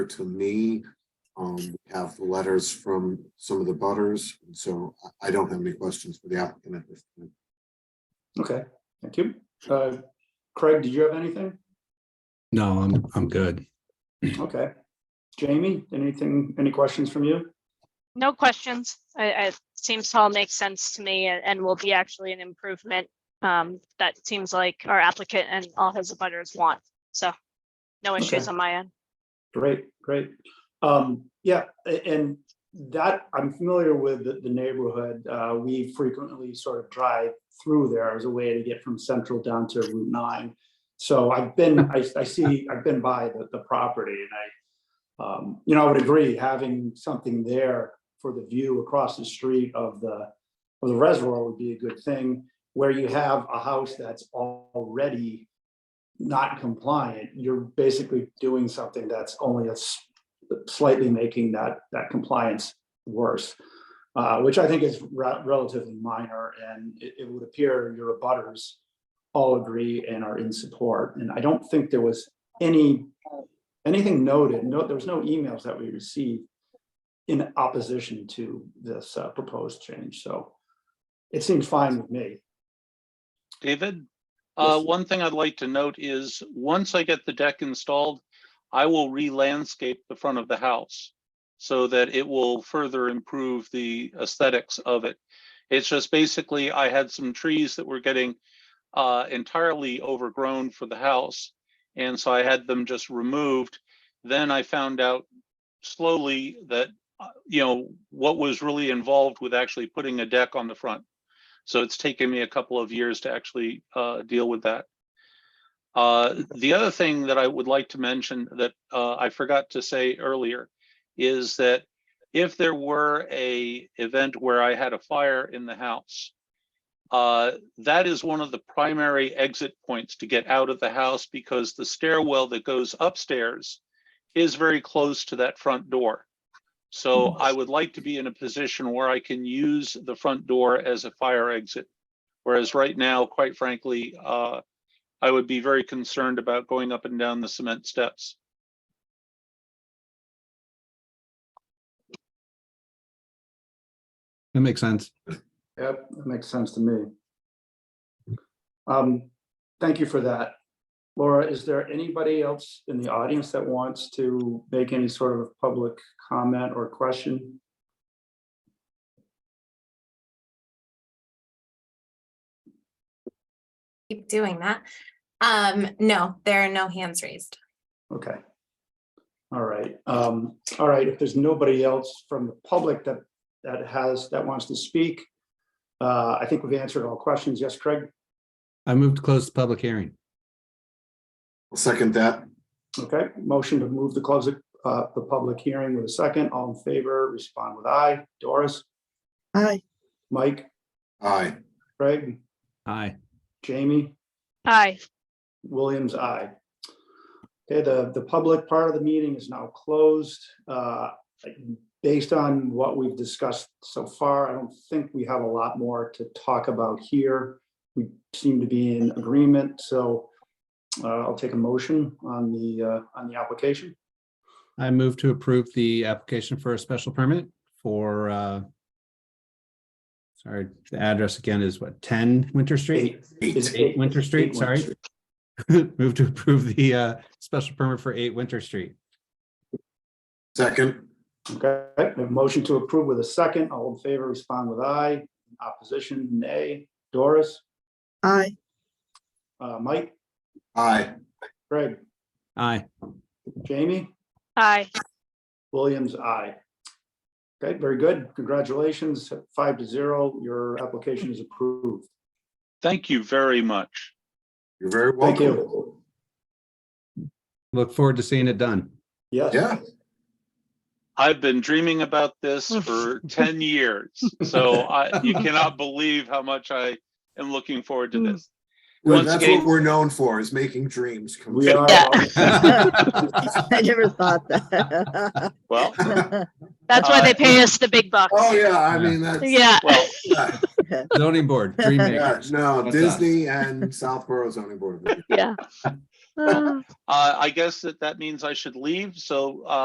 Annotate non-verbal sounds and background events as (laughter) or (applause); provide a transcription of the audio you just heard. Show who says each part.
Speaker 1: to me. Um, we have the letters from some of the butters, and so I, I don't have any questions for the applicant at this time.
Speaker 2: Okay, thank you. Uh, Craig, did you have anything?
Speaker 3: No, I'm, I'm good.
Speaker 2: Okay. Jamie, anything, any questions from you?
Speaker 4: No questions. I, I, it seems to all make sense to me and, and will be actually an improvement. Um, that seems like our applicant and all his abutters want, so no issues
Speaker 2: Okay.
Speaker 4: on my end.
Speaker 2: Great, great. Um, yeah, a- and that, I'm familiar with the, the neighborhood. Uh, we frequently sort of drive through there as a way to get from central down to Route nine. So I've been, I, I see, I've been by the, the property and I, um, you know, I would agree, having something there for the view across the street of the, of the reservoir would be a good thing. Where you have a house that's already not compliant, you're basically doing something that's only a s- slightly making that, that compliance worse, uh, which I think is re- relatively minor, and it, it would appear your abutters all agree and are in support, and I don't think there was any, anything noted, no, there was no emails that we received in opposition to this uh, proposed change, so it seems fine with me.
Speaker 5: David, uh,
Speaker 2: Yes.
Speaker 5: one thing I'd like to note is, once I get the deck installed, I will re-landscape the front of the house so that it will further improve the aesthetics of it. It's just basically, I had some trees that were getting uh, entirely overgrown for the house. And so I had them just removed. Then I found out slowly that, uh, you know, what was really involved with actually putting a deck on the front. So it's taken me a couple of years to actually uh, deal with that. Uh, The other thing that I would like to mention that uh, I forgot to say earlier is that if there were a event where I had a fire in the house, uh, that is one of the primary exit points to get out of the house because the stairwell that goes upstairs is very close to that front door. So I would like to be in a position where I can use the front door as a fire exit. Whereas right now, quite frankly, uh, I would be very concerned about going up and down the cement steps.
Speaker 3: That makes sense.
Speaker 2: Yep, that makes sense to me. Um, thank you for that. Laura, is there anybody else in the audience that wants to make any sort of public comment or question?
Speaker 6: keep doing that. Um, no, there are no hands raised.
Speaker 2: Okay. All right, um, all right, if there's nobody else from the public that, that has, that wants to speak, uh, I think we've answered all questions. Yes, Craig?
Speaker 3: I moved to close the public hearing.
Speaker 1: I'll Second that,
Speaker 2: Okay, motion to move the close, the, uh, the public hearing with a second. All in favor, respond with aye. Doris?
Speaker 7: Aye.
Speaker 2: Mike?
Speaker 1: aye.
Speaker 2: Craig?
Speaker 3: Aye.
Speaker 2: Jamie?
Speaker 4: Hi,
Speaker 2: Williams, aye. Okay, the, the public part of the meeting is now closed. Uh, Based on what we've discussed so far, I don't think we have a lot more to talk about here. We seem to be in agreement, so uh, I'll take a motion on the, uh, on the application.
Speaker 3: I move to approve the application for a special permit for, uh, sorry, the address again is what, 10 Winter Street?
Speaker 1: Eight.
Speaker 2: Is it
Speaker 3: Eight Winter Street,
Speaker 2: Eight
Speaker 3: sorry. (laughs) Move to approve the, uh, special permit for 8 Winter Street.
Speaker 1: Second,
Speaker 2: Okay, a motion to approve with a second. All in favor, respond with aye. Opposition, nay. Doris,
Speaker 7: Aye.
Speaker 2: uh, Mike,
Speaker 1: aye.
Speaker 2: Greg,
Speaker 3: Aye.
Speaker 2: Jamie?
Speaker 4: hi.
Speaker 2: Williams, aye. Okay, very good. Congratulations. Five to zero, your application is approved.
Speaker 5: Thank you very much.
Speaker 1: You're very
Speaker 2: Thank
Speaker 1: welcome.
Speaker 2: you.
Speaker 3: Look forward to seeing it (laughs) done.
Speaker 2: Yes.
Speaker 1: Yeah,
Speaker 5: I've been dreaming about this for ten years, so I, you cannot believe how much I am looking forward to this.
Speaker 1: well,
Speaker 5: Once
Speaker 1: that's
Speaker 5: again-
Speaker 1: what we're known for, is making dreams come
Speaker 2: We
Speaker 1: true.
Speaker 2: are,
Speaker 7: (laughs) I never thought that.
Speaker 5: Well,
Speaker 4: That's why they
Speaker 5: Uh,
Speaker 4: pay us the big bucks.
Speaker 1: Oh, yeah, I
Speaker 3: Yeah.
Speaker 1: mean, that's.
Speaker 4: Yeah,
Speaker 5: well,
Speaker 1: yeah,
Speaker 3: Zoning (laughs) board, dream
Speaker 1: yeah,
Speaker 3: makers.
Speaker 1: No,
Speaker 3: That's us.
Speaker 1: Disney and Southborough zoning board.
Speaker 4: yeah. (laughs) Uh.
Speaker 5: uh, I guess that that means I should leave, so, uh,